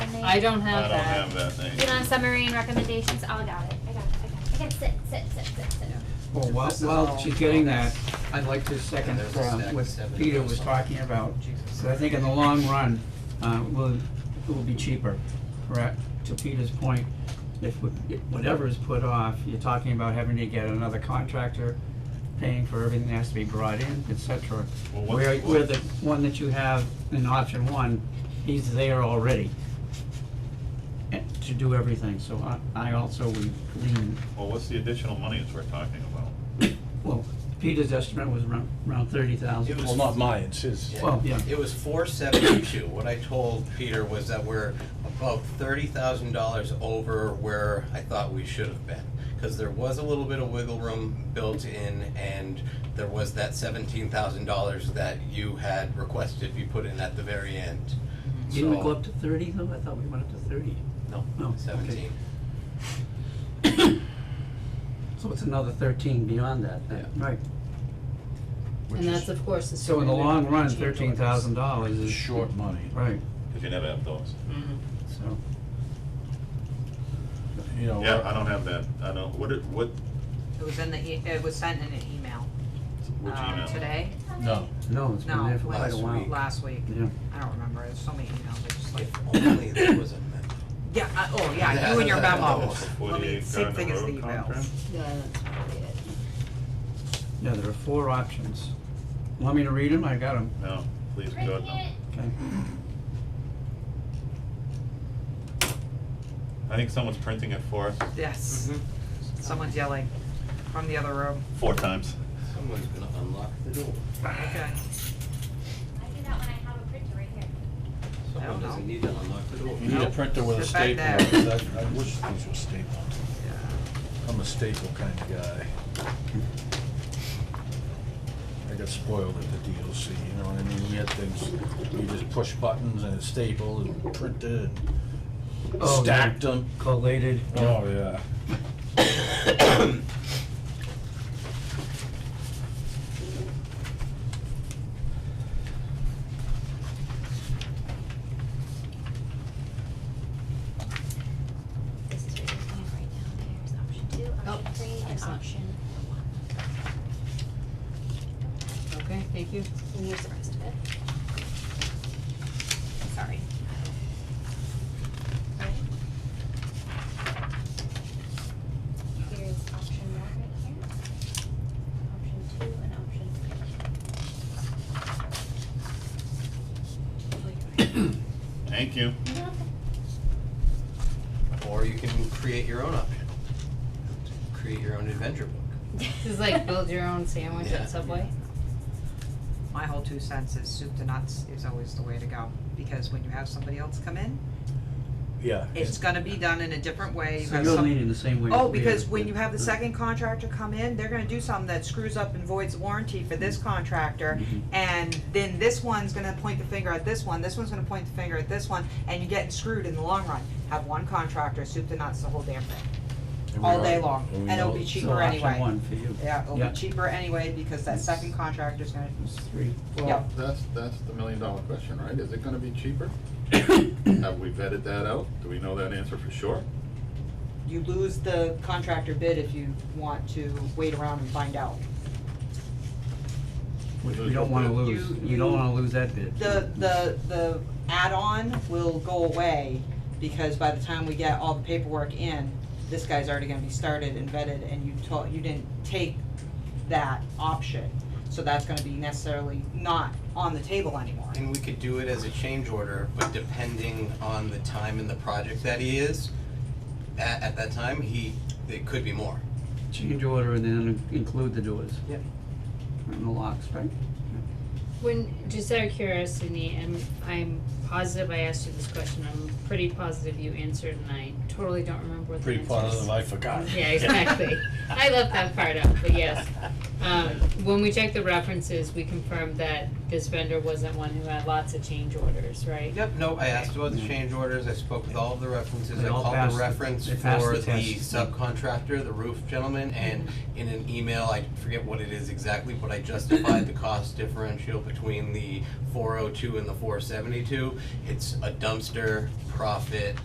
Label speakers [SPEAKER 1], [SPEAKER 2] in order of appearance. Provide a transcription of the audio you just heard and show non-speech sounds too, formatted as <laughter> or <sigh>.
[SPEAKER 1] I don't
[SPEAKER 2] I
[SPEAKER 1] have
[SPEAKER 2] don't
[SPEAKER 1] that.
[SPEAKER 2] have that thing.
[SPEAKER 3] You don't have summary and recommendations? Oh, I got it. I got it. I got it. I got it. Sit, sit, sit, sit, sit.
[SPEAKER 4] Well, while,
[SPEAKER 5] This is
[SPEAKER 4] while
[SPEAKER 5] all-
[SPEAKER 4] she's getting that, I'd like to second
[SPEAKER 5] Yeah, there's a
[SPEAKER 4] uh,
[SPEAKER 5] stack
[SPEAKER 4] what
[SPEAKER 5] of seven. Oh,
[SPEAKER 4] Peter was talking about. So I think in the long run, uh, will, it will be cheaper, correct? To Peter's point, if wh- whatever is put off, you're talking about having to get another contractor, paying for everything that has to be brought in, et cetera.
[SPEAKER 2] Well, what-
[SPEAKER 4] Where, where the one that you have in option one, he's there already eh, to do everything, so I, I also would lean
[SPEAKER 2] Well, what's the additional monies we're talking about?
[SPEAKER 4] well, Peter's estimate was around, around thirty thousand.
[SPEAKER 6] Well, not mine, it's his.
[SPEAKER 4] Well, yeah.
[SPEAKER 5] It was four seventy-two. What I told Peter was that we're about thirty thousand dollars over where I thought we should have been. Cause there was a little bit of wiggle room built in and there was that seventeen thousand dollars that you had requested be put in at the very end.
[SPEAKER 4] Didn't we
[SPEAKER 5] So-
[SPEAKER 4] go up to thirty though? I thought we went up to thirty.
[SPEAKER 5] No,
[SPEAKER 4] No, okay.
[SPEAKER 5] seventeen.
[SPEAKER 4] So it's another thirteen beyond that then. Right.
[SPEAKER 1] And that's, of course, the.
[SPEAKER 4] So in the long run,
[SPEAKER 1] surrender of
[SPEAKER 4] thirteen thousand dollars
[SPEAKER 6] It's
[SPEAKER 4] is.
[SPEAKER 6] Short money,
[SPEAKER 4] Right,
[SPEAKER 2] Because you never have those.
[SPEAKER 1] Mm-hmm.
[SPEAKER 4] so.
[SPEAKER 6] you know. uh,
[SPEAKER 2] Yeah, Oh, I don't have that. I don't, what, it- what,
[SPEAKER 7] It was in the, e- it was sent in an email,
[SPEAKER 2] which
[SPEAKER 7] um,
[SPEAKER 2] email?
[SPEAKER 7] today,
[SPEAKER 6] No,
[SPEAKER 4] No, it's been
[SPEAKER 7] no,
[SPEAKER 4] there for quite
[SPEAKER 7] last
[SPEAKER 4] a
[SPEAKER 7] week,
[SPEAKER 4] while.
[SPEAKER 7] last week.
[SPEAKER 4] Yeah.
[SPEAKER 7] I don't remember, there's so many emails, I just like,
[SPEAKER 5] If only there was a memo.
[SPEAKER 7] yeah, I- oh, yeah, you and your
[SPEAKER 2] Oh,
[SPEAKER 7] memo.
[SPEAKER 2] it's
[SPEAKER 7] Let me,
[SPEAKER 2] 48
[SPEAKER 7] same thing
[SPEAKER 2] Gardner
[SPEAKER 7] as the
[SPEAKER 2] Road contract?
[SPEAKER 7] emails.
[SPEAKER 1] Yeah, that's probably it.
[SPEAKER 4] Yeah, there are four options. Want me to read them? I got them,
[SPEAKER 2] No, please,
[SPEAKER 3] Right
[SPEAKER 2] God, no.
[SPEAKER 3] here.
[SPEAKER 4] okay.
[SPEAKER 2] I think someone's printing it for us
[SPEAKER 7] Yes, someone's yelling from the other room,
[SPEAKER 2] four times.
[SPEAKER 5] Someone's gonna unlock the door.
[SPEAKER 7] okay,
[SPEAKER 3] I do that when I have a printer right here.
[SPEAKER 7] don't
[SPEAKER 5] Someone doesn't
[SPEAKER 7] know.
[SPEAKER 5] need to unlock the door.
[SPEAKER 6] you need a
[SPEAKER 7] Nope.
[SPEAKER 6] printer with a
[SPEAKER 7] Sit back
[SPEAKER 6] staple,
[SPEAKER 7] there.
[SPEAKER 6] 'cause I, I wish these were stapled.
[SPEAKER 7] yeah.
[SPEAKER 6] I'm a staple kind of guy. I got spoiled at the DOC, you know what I mean? We had things, we just push buttons and stapled and printed and
[SPEAKER 4] Oh, yeah.
[SPEAKER 6] stacked them.
[SPEAKER 4] Collated.
[SPEAKER 6] Oh, yeah.
[SPEAKER 3] This is where you're going right now. There's option two,
[SPEAKER 1] Oh,
[SPEAKER 3] option three, and
[SPEAKER 1] excellent.
[SPEAKER 3] option one.
[SPEAKER 1] Okay, thank you.
[SPEAKER 3] And use the rest of it. Sorry. Here's option one right here. Option two and option three.
[SPEAKER 2] Thank you.
[SPEAKER 5] Or you can create your own option. Create your own adventure book.
[SPEAKER 1] <laughs> This is like build your own sandwich
[SPEAKER 5] Yeah.
[SPEAKER 1] at Subway.
[SPEAKER 7] My whole two cents is soup to nuts is always the way to go, because when you have somebody else come in,
[SPEAKER 6] Yeah.
[SPEAKER 7] it's gonna be done in a different way, you
[SPEAKER 4] So
[SPEAKER 7] have
[SPEAKER 4] you're
[SPEAKER 7] some-
[SPEAKER 4] leaning the same way.
[SPEAKER 7] Oh,
[SPEAKER 4] as Peter
[SPEAKER 7] because when
[SPEAKER 4] did.
[SPEAKER 7] you have the second contractor come in, they're gonna do something that screws up and voids warranty for this contractor.
[SPEAKER 4] Mhm.
[SPEAKER 7] And then this one's gonna point the finger at this one, this one's gonna point the finger at this one, and you're getting screwed in the long run. Have one contractor, soup to nuts, the whole damn thing,
[SPEAKER 6] And we
[SPEAKER 7] all
[SPEAKER 6] are-
[SPEAKER 7] day long,
[SPEAKER 6] we
[SPEAKER 7] and it'll
[SPEAKER 6] know-
[SPEAKER 7] be
[SPEAKER 4] So
[SPEAKER 7] cheaper
[SPEAKER 4] option
[SPEAKER 7] anyway.
[SPEAKER 4] one for you.
[SPEAKER 7] Yeah, it'll
[SPEAKER 4] Yeah.
[SPEAKER 7] be cheaper anyway, because that second contractor's gonna,
[SPEAKER 4] It's three.
[SPEAKER 7] Yeah.
[SPEAKER 8] Well, that's, that's the million dollar question, right? Is it gonna be
[SPEAKER 2] <coughs>
[SPEAKER 8] cheaper? Have we vetted that out? Do we know that answer for sure?
[SPEAKER 7] you lose the contractor bid if you want to wait around and find out.
[SPEAKER 4] Which we don't wanna lose,
[SPEAKER 7] You-
[SPEAKER 4] we don't
[SPEAKER 7] you-
[SPEAKER 4] wanna lose that bid.
[SPEAKER 7] the the the add-on will go away because by the time we get all the paperwork in, this guy's already gonna be started and vetted and you told, you didn't take that option. So that's gonna be necessarily not on the table anymore.
[SPEAKER 5] And we could do it as a change order, but depending on the time in the project that he is, at, at that time, he, it could be more.
[SPEAKER 4] Change order and then include the doors.
[SPEAKER 7] Yep.
[SPEAKER 4] And the locks, right?
[SPEAKER 1] When, just out of curiosity, and I'm positive I asked you this question, I'm pretty positive you answered and I totally don't remember what the
[SPEAKER 6] Pretty
[SPEAKER 1] answer is.
[SPEAKER 6] positive, I forgot.
[SPEAKER 1] Yeah,
[SPEAKER 6] <laughs>
[SPEAKER 1] exactly. I left that part out, but yes. Um, when we checked the references, we confirmed that this vendor wasn't one who had lots of change orders, right?
[SPEAKER 5] Yep, no, I asked about the change orders, I spoke with all of the references,
[SPEAKER 4] They
[SPEAKER 5] I
[SPEAKER 4] all
[SPEAKER 5] called
[SPEAKER 4] passed
[SPEAKER 5] the
[SPEAKER 4] the-
[SPEAKER 5] reference
[SPEAKER 4] they passed
[SPEAKER 5] for
[SPEAKER 4] the
[SPEAKER 5] the
[SPEAKER 4] test.
[SPEAKER 5] subcontractor, the roof gentleman, and in an email, I forget what it is exactly, but I justified the cost differential between the four oh two and the four seventy-two. It's a dumpster profit